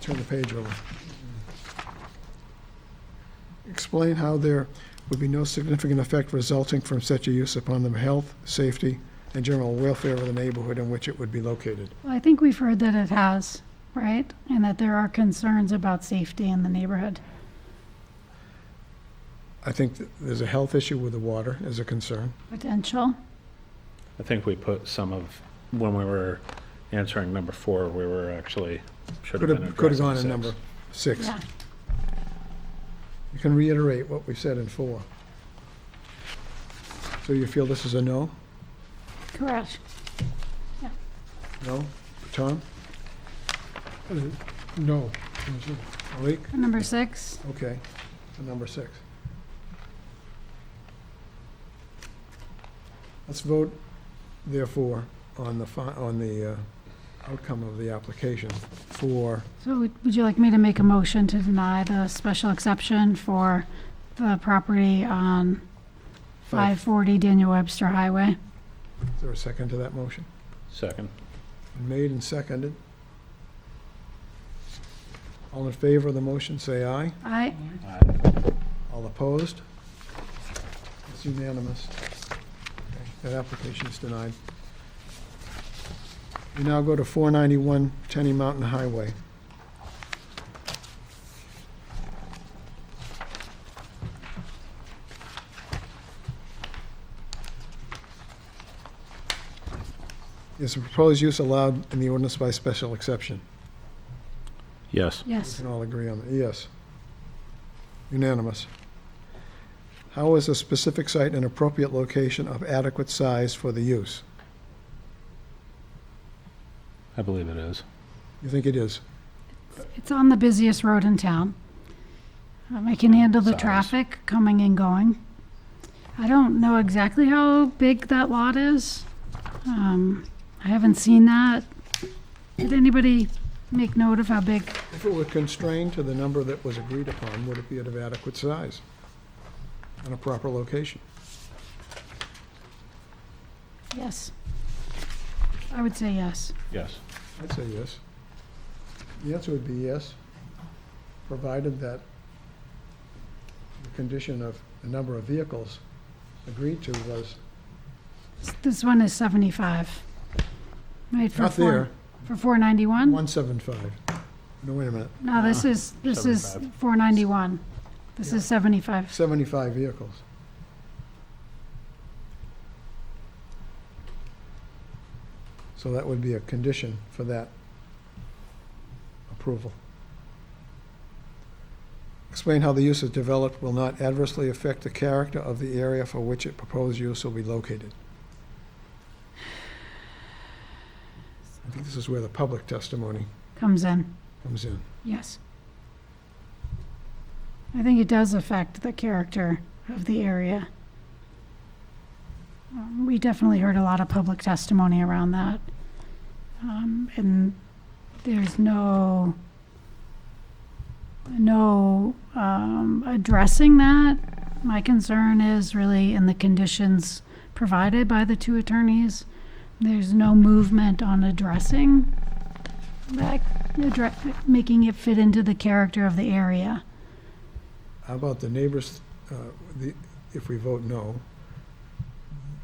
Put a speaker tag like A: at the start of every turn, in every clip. A: turn the page over. Explain how there would be no significant effect resulting from such a use upon the health, safety, and general welfare of the neighborhood in which it would be located.
B: Well, I think we've heard that it has, right? And that there are concerns about safety in the neighborhood.
A: I think th- there's a health issue with the water as a concern.
B: Potential,
C: I think we put some of, when we were answering number four, we were actually, should have
A: Could
C: been
A: have, could have
C: addressing
A: gone to number six.
C: six.
B: yeah.
A: You can reiterate what we said in four. So you feel this is a no?
B: Correct.
A: No? Tom?
D: No.
A: Malik?
B: Number six,
A: Okay, so number six. Let's vote therefore on the, fi- on the uh, outcome of the application for,
B: so would would you like me to make a motion to deny the special exception for the property on
A: Five.
B: 540 Daniel Webster Highway?
A: is there a second to that motion?
C: Second.
A: Made and seconded. All in favor of the motion, say aye.
B: I,
A: All opposed? It's unanimous. Okay, That application is denied. We now go to 491 Tenny Mountain Highway. Is the proposed use allowed in the ordinance by special exception?
C: Yes.
A: We
B: yes.
A: can all agree on that, yes. Unanimous. How is a specific site an appropriate location of adequate size for the use?
C: I believe it is.
A: You think it is?
B: It's on the busiest road in town. Um, I can handle the
C: Size.
B: traffic coming and going. I don't know exactly how big that lot is. Um, I haven't seen that. Did anybody make note of how big?
A: If it were constrained to the number that was agreed upon, would it be of adequate size? And a proper location?
B: Yes. I would say yes.
C: Yes.
A: I'd say yes. The answer would be yes, provided that the condition of the number of vehicles agreed to was
B: S- This one is 75. Right, for
A: not
B: four-
A: there,
B: For 491?
A: 175. No, wait a minute.
B: No, this is, this is
C: 75.
B: 491. This
A: Ah, Yeah.
B: is 75.
A: 75 vehicles. So that would be a condition for that approval. Explain how the use is developed will not adversely affect the character of the area for which it proposed use will be located. I think this is where the public testimony
B: Comes in.
A: comes in.
B: Yes. I think it does affect the character of the area. Um, We definitely heard a lot of public testimony around that. Um, and there's no, no, um, addressing that. My concern is really in the conditions provided by the two attorneys. There's no movement on addressing that addre- making it fit into the character of the area.
A: How about the neighbors, uh, the- if we vote no,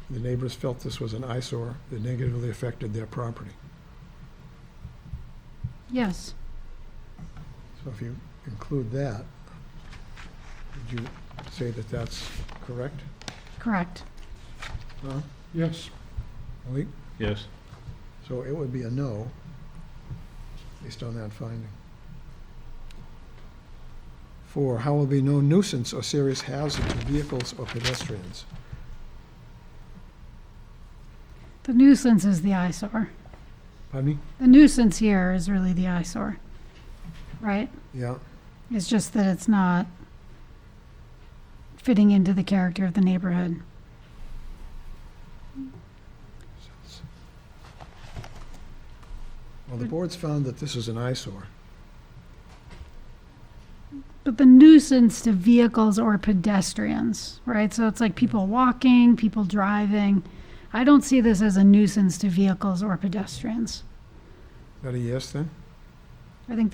A: the neighbors felt this was an eyesore that negatively affected their property.
B: Yes,
A: So if you include that, would you say that that's correct?
B: correct.
A: Huh?
D: Yes.
A: Malik?
C: Yes.
A: So it would be a no, based on that finding. Four, how will be no nuisance or serious hazard to vehicles or pedestrians?
B: The nuisance is the eyesore.
A: Pardon me?
B: The nuisance here is really the eyesore, right?
A: Yeah,
B: It's just that it's not fitting into the character of the neighborhood.
A: well, the board's found that this is an eyesore.
B: But the nuisance to vehicles or pedestrians, right? So it's like people walking, people driving. I don't see this as a nuisance to vehicles or pedestrians.
A: Is that a yes, then?
B: I think